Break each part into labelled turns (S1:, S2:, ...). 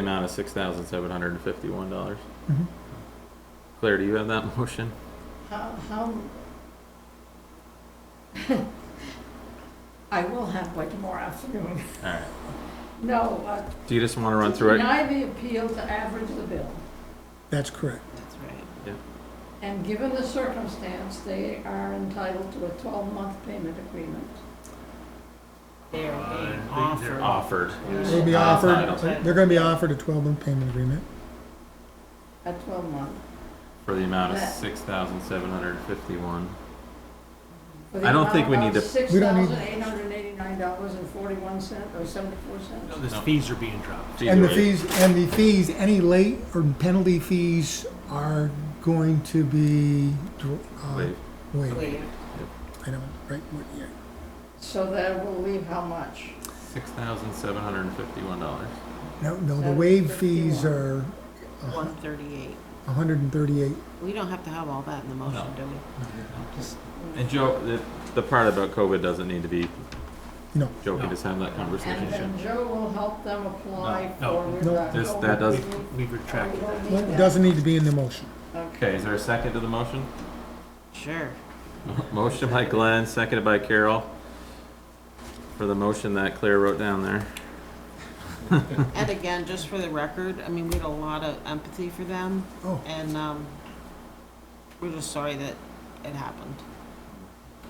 S1: amount of six thousand seven hundred and fifty-one dollars.
S2: Mm-hmm.
S1: Claire, do you have that motion?
S3: How, how? I will have one tomorrow afternoon.
S1: All right.
S3: No, uh.
S1: Do you just want to run through it?
S3: Deny the appeal to average the bill.
S2: That's correct.
S4: That's right.
S3: And given the circumstance, they are entitled to a twelve-month payment agreement.
S4: They're being
S5: Uh, they-
S4: offered.
S5: they're
S1: Offered.
S2: They'll be
S4: Uh,
S2: offered,
S4: entitled.
S2: they're gonna be offered a twelve-month payment agreement.
S3: A twelve-month.
S1: For the amount of
S3: That-
S1: six thousand seven hundred and fifty-one. I don't think we need to-
S3: Six
S2: We don't need-
S3: thousand eight hundred eighty-nine dollars and forty-one cent, or seventy-four
S5: No,
S3: cents.
S5: the
S1: No.
S5: fees are being dropped.
S2: And the fees, and the fees, any late or penalty fees are going to be, dr- uh,
S1: Wait,
S2: waived.
S4: Believe.
S2: I don't, right, what year?
S3: So that will leave how much?
S1: six thousand seven hundred and fifty-one dollars.
S2: No, no, the
S3: Seven
S2: waived fees
S3: fifty-one.
S2: are
S4: One thirty-eight.
S2: hundred and thirty-eight.
S4: We don't have to have all that in the motion,
S1: No.
S4: do we?
S1: And Joe, the, the part about COVID doesn't need to be.
S2: No.
S1: Joe can
S5: No.
S1: just have that
S3: And
S1: conversation.
S3: then Joe will help them apply
S5: No,
S3: for.
S2: No.
S5: no.
S3: reduction.
S1: This- that does-
S5: We've- We've retracted that.
S3: We don't need that.
S2: Doesn't need to be in the motion.
S1: Okay, is there a second to the motion?
S4: Sure.
S1: Motion by Glenn, seconded by Carol. For the motion that Claire wrote down there.
S4: And again, just for the record, I mean, we had a lot of empathy for them
S2: Oh,
S4: and, um, we're just sorry that it happened.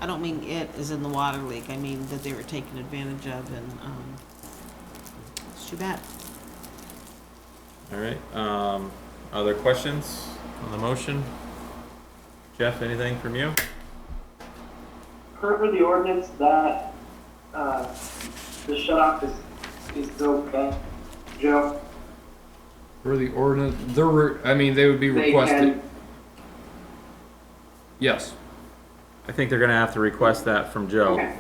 S4: I don't mean it is in the water leak. I mean that they were taken advantage of and, um, it's too bad.
S1: All right, um, other questions on the motion? Jeff, anything from you?
S6: Per for the ordinance, that, uh, the shut off is, is still bad, Joe.
S7: For the ordinance, they're, re- I mean, they would be
S6: They
S7: requested,
S6: can,
S7: yes,
S1: I think they're gonna have to request that from Joe.
S6: okay,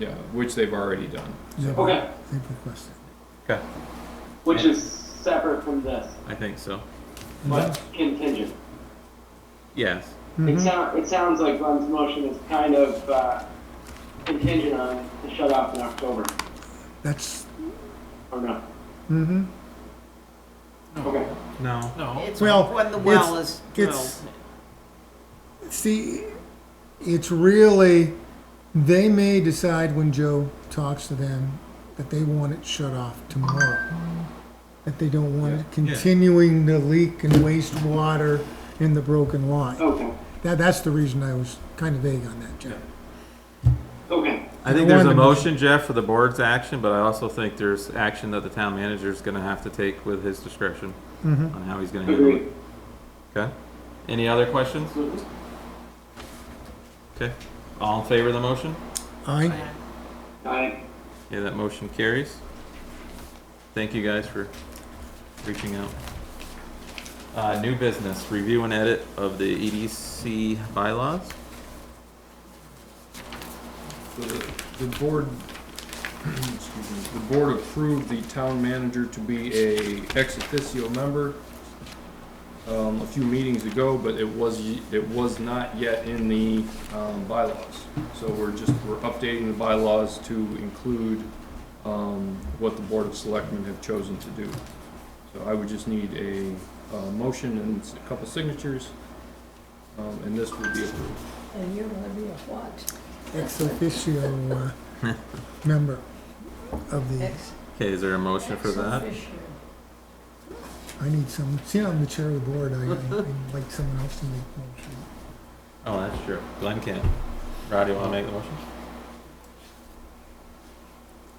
S7: yeah, which they've already done.
S2: they've
S6: okay,
S2: they've requested.
S6: which is separate from this,
S1: I think so.
S6: but contingent.
S1: Yes.
S6: It
S2: Mhm.
S6: sound, it sounds like Glenn's motion is kind of, uh, contingent on the shut off in October,
S2: That's,
S6: or no?
S2: hmm
S6: Okay.
S1: No.
S5: No,
S4: It's
S2: Oh. Well,
S4: when the well
S2: it's-
S4: is drilled.
S2: it's- See, it's really, they may decide when Joe talks to them that they want it shut off tomorrow. That they don't want it continuing to leak and waste water in the broken line.
S1: Oh.
S6: Okay,
S2: That, that's the reason I was kind of vague on that, Joe.
S6: okay,
S1: I think there's a
S2: One-
S1: motion, Jeff, for the board's action, but I also think there's action that the town manager's gonna have to take with his discretion
S2: Mhm.
S1: on how he's gonna handle
S6: agree.
S1: it. Okay? Any other questions? Okay. All in favor of the motion?
S2: Aye.
S6: Aye.
S1: Yeah, that motion carries. Thank you guys for reaching out. Uh, new business, review and edit of the EDC bylaws.
S7: The the board, excuse me, the board approved the town manager to be a ex officio member um, a few meetings ago, but it was, y- it was not yet in the, um, bylaws. So we're just, we're updating the bylaws to include, um, what the board of selectmen have chosen to do. So I would just need a, uh, motion and s- a couple signatures, um, and this will be approved.
S3: And you're gonna be a what?
S2: Ex officio uh, member of the,
S3: Ex-
S1: Okay, is there a motion for
S3: ex
S1: that?
S3: officio.
S2: I need some, see, I'm the chair of the board, I, I'd like someone else to make motion.
S1: Oh, that's true. Glenn can. Rod, you wanna make the motion?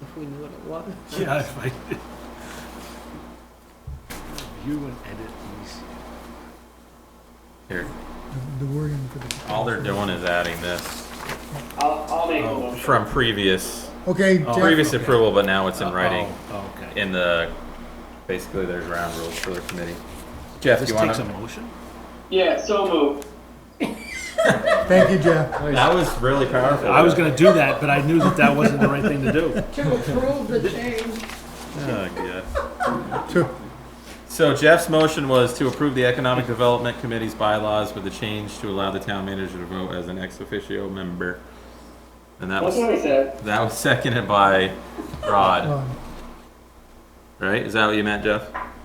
S4: If we knew what it was.
S5: yeah, if I did. Review and edit these.
S1: Here,
S2: The- The wording for the.
S1: all they're doing is adding this
S6: I'll, I'll make a motion.
S1: from previous, uh,
S2: Okay,
S5: Oh,
S2: Jeff,
S1: previous approval, but now it's in writing.
S5: Oh, Okay.
S1: In the, basically there's round rules for the committee. Jeff,
S5: This
S1: you
S5: takes a
S1: wanna?
S5: motion?
S6: Yeah, so moved.
S2: thank you, Jeff.
S1: That was really powerful.
S5: I was gonna do that, but I knew that that wasn't the right thing to do.
S3: To approve the change,
S1: Oh, God.
S2: Two.
S1: So Jeff's motion was to approve the Economic Development Committee's bylaws with the change to allow the town manager to vote as an ex officio member. And that
S6: That's what
S1: was,
S6: I said.
S1: that was seconded by Rod,
S2: Um,
S1: right? Is that what you meant, Jeff?